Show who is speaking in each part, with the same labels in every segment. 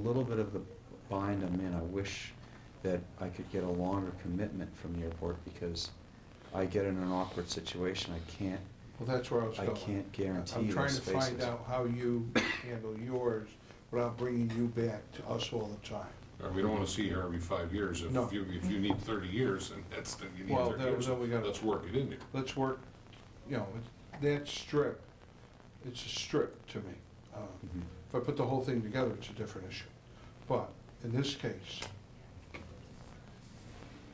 Speaker 1: little bit of the bind I'm in, I wish that I could get a longer commitment from the airport because I get in an awkward situation, I can't,
Speaker 2: Well, that's where I was
Speaker 1: I
Speaker 2: going.
Speaker 1: can't guarantee
Speaker 2: I'm trying
Speaker 1: those
Speaker 2: to find
Speaker 1: spaces.
Speaker 2: out how you handle yours without bringing you back to us all the time.
Speaker 3: Uh, We don't want to see her every five years. If
Speaker 2: No.
Speaker 3: you, if you need thirty years, then that's, then you need
Speaker 2: Well,
Speaker 3: thirty
Speaker 2: that
Speaker 3: years.
Speaker 2: was what we gotta-
Speaker 3: Let's work it in there.
Speaker 2: Let's work, you know, it- that strip, it's a strip to me. Uh,
Speaker 1: Mhm.
Speaker 2: If I put the whole thing together, it's a different issue. But in this case,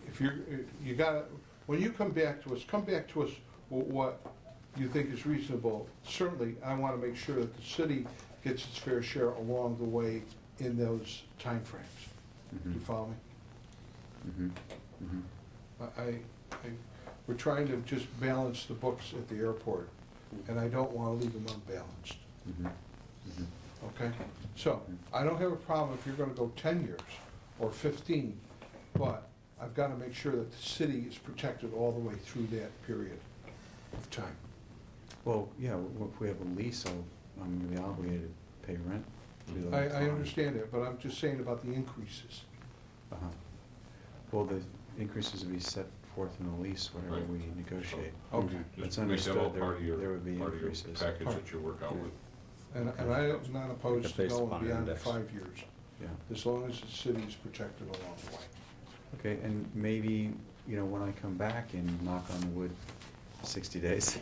Speaker 2: if you're, uh, you gotta, when you come back to us, come back to us with what you think is reasonable. Certainly, I wanna make sure that the city gets its fair share along the way in those timeframes. Do you
Speaker 1: Mhm.
Speaker 2: follow me?
Speaker 1: Mhm. Mhm.
Speaker 2: I, I, we're trying to just balance the books at the airport, and I don't wanna leave them unbalanced,
Speaker 1: Mhm. Mhm.
Speaker 2: okay? So, I don't have a problem if you're gonna go ten years or fifteen, but I've gotta make sure that the city is protected all the way through that period of time.
Speaker 1: Well, yeah, w- if we have a lease, I'll, I'm gonna be obligated to pay rent. through that
Speaker 2: I, I
Speaker 1: time.
Speaker 2: understand that, but I'm just saying about the increases.
Speaker 1: Uh-huh. Well, the increases would be set forth in the lease, whatever
Speaker 3: Right.
Speaker 1: we negotiate.
Speaker 2: Okay.
Speaker 1: It's
Speaker 3: Just make that all
Speaker 1: understood, there
Speaker 3: part of your,
Speaker 1: there would be
Speaker 3: part of your
Speaker 1: increases.
Speaker 3: package that you work out
Speaker 1: Yeah.
Speaker 3: with.
Speaker 2: And, and I am not opposed to
Speaker 4: Based
Speaker 2: going
Speaker 4: upon
Speaker 2: beyond
Speaker 4: index.
Speaker 2: five years,
Speaker 1: Yeah.
Speaker 2: as long as the city is protected along the way.
Speaker 1: Okay, and maybe, you know, when I come back in, knock on wood, sixty days.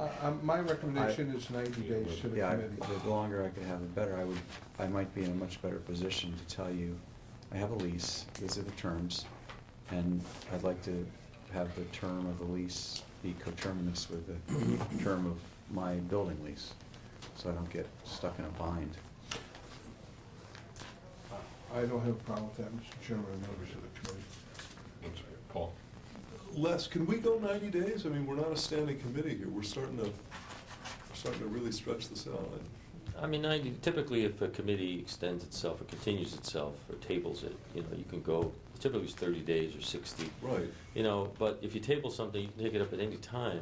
Speaker 2: Uh, um, my recommendation is ninety days to the
Speaker 1: Yeah, I-
Speaker 2: committee.
Speaker 1: the longer I could have, the better. I would, I might be in a much better position to tell you, I have a lease, these are the terms, and I'd like to have the term of the lease be coterminous with the term of my building lease, so I don't get stuck in a bind.
Speaker 2: I don't have a problem with that, Mr. Chairman, and members of the committee.
Speaker 3: One second, Paul,
Speaker 5: Les, can we go 90 days? I mean, we're not a standing committee here. We're starting to, we're starting to really stretch this out.
Speaker 4: I mean, I, typically if a committee extends itself or continues itself or tables it, you know, you can go, typically it's thirty days or sixty,
Speaker 5: Right.
Speaker 4: you know, but if you table something, you can take it up at any time,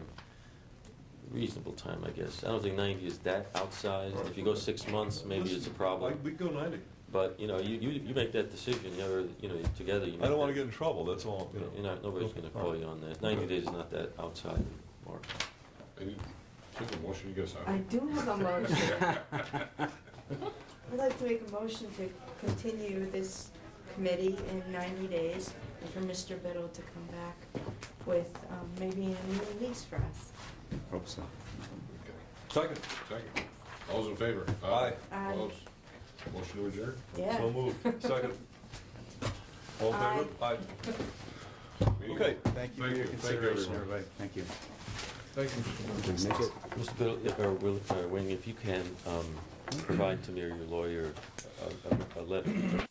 Speaker 4: reasonable time, I guess. I don't think ninety is that outsized. If you go six months, maybe it's a
Speaker 5: Listen, I-
Speaker 4: problem.
Speaker 5: We can go 90.
Speaker 4: But, you know, you, you, you make that decision, you're, you know, together you make
Speaker 5: I don't want to
Speaker 4: that-
Speaker 5: get in trouble, that's all, you know.
Speaker 4: You're not, nobody's gonna call you on that. Ninety days is not that outside, Mark.
Speaker 3: any, take a motion, you guys have?
Speaker 6: I do have a motion. I'd like to make a motion to continue this committee in ninety days and for Mr. Biddle to come back with um, maybe a new lease for us.
Speaker 1: Hope so.
Speaker 3: Okay.
Speaker 5: Second.
Speaker 3: Second, all's in favor?
Speaker 5: Aye.
Speaker 6: Aye.
Speaker 3: Opposed? Motion to adjourn?
Speaker 6: Yeah.
Speaker 5: So moved. Second. All in favor? Aye.
Speaker 3: Meeting
Speaker 5: Okay.
Speaker 3: over.
Speaker 1: Thank you for your
Speaker 3: Thank you,
Speaker 1: consideration,
Speaker 3: everyone.
Speaker 1: everybody. Thank you.
Speaker 2: Thank you, Mr. Chairman.
Speaker 1: Make it-
Speaker 4: Mr. Biddle, if- or Will, or Wing, if you can, um, provide to me or your lawyer a, a, a letter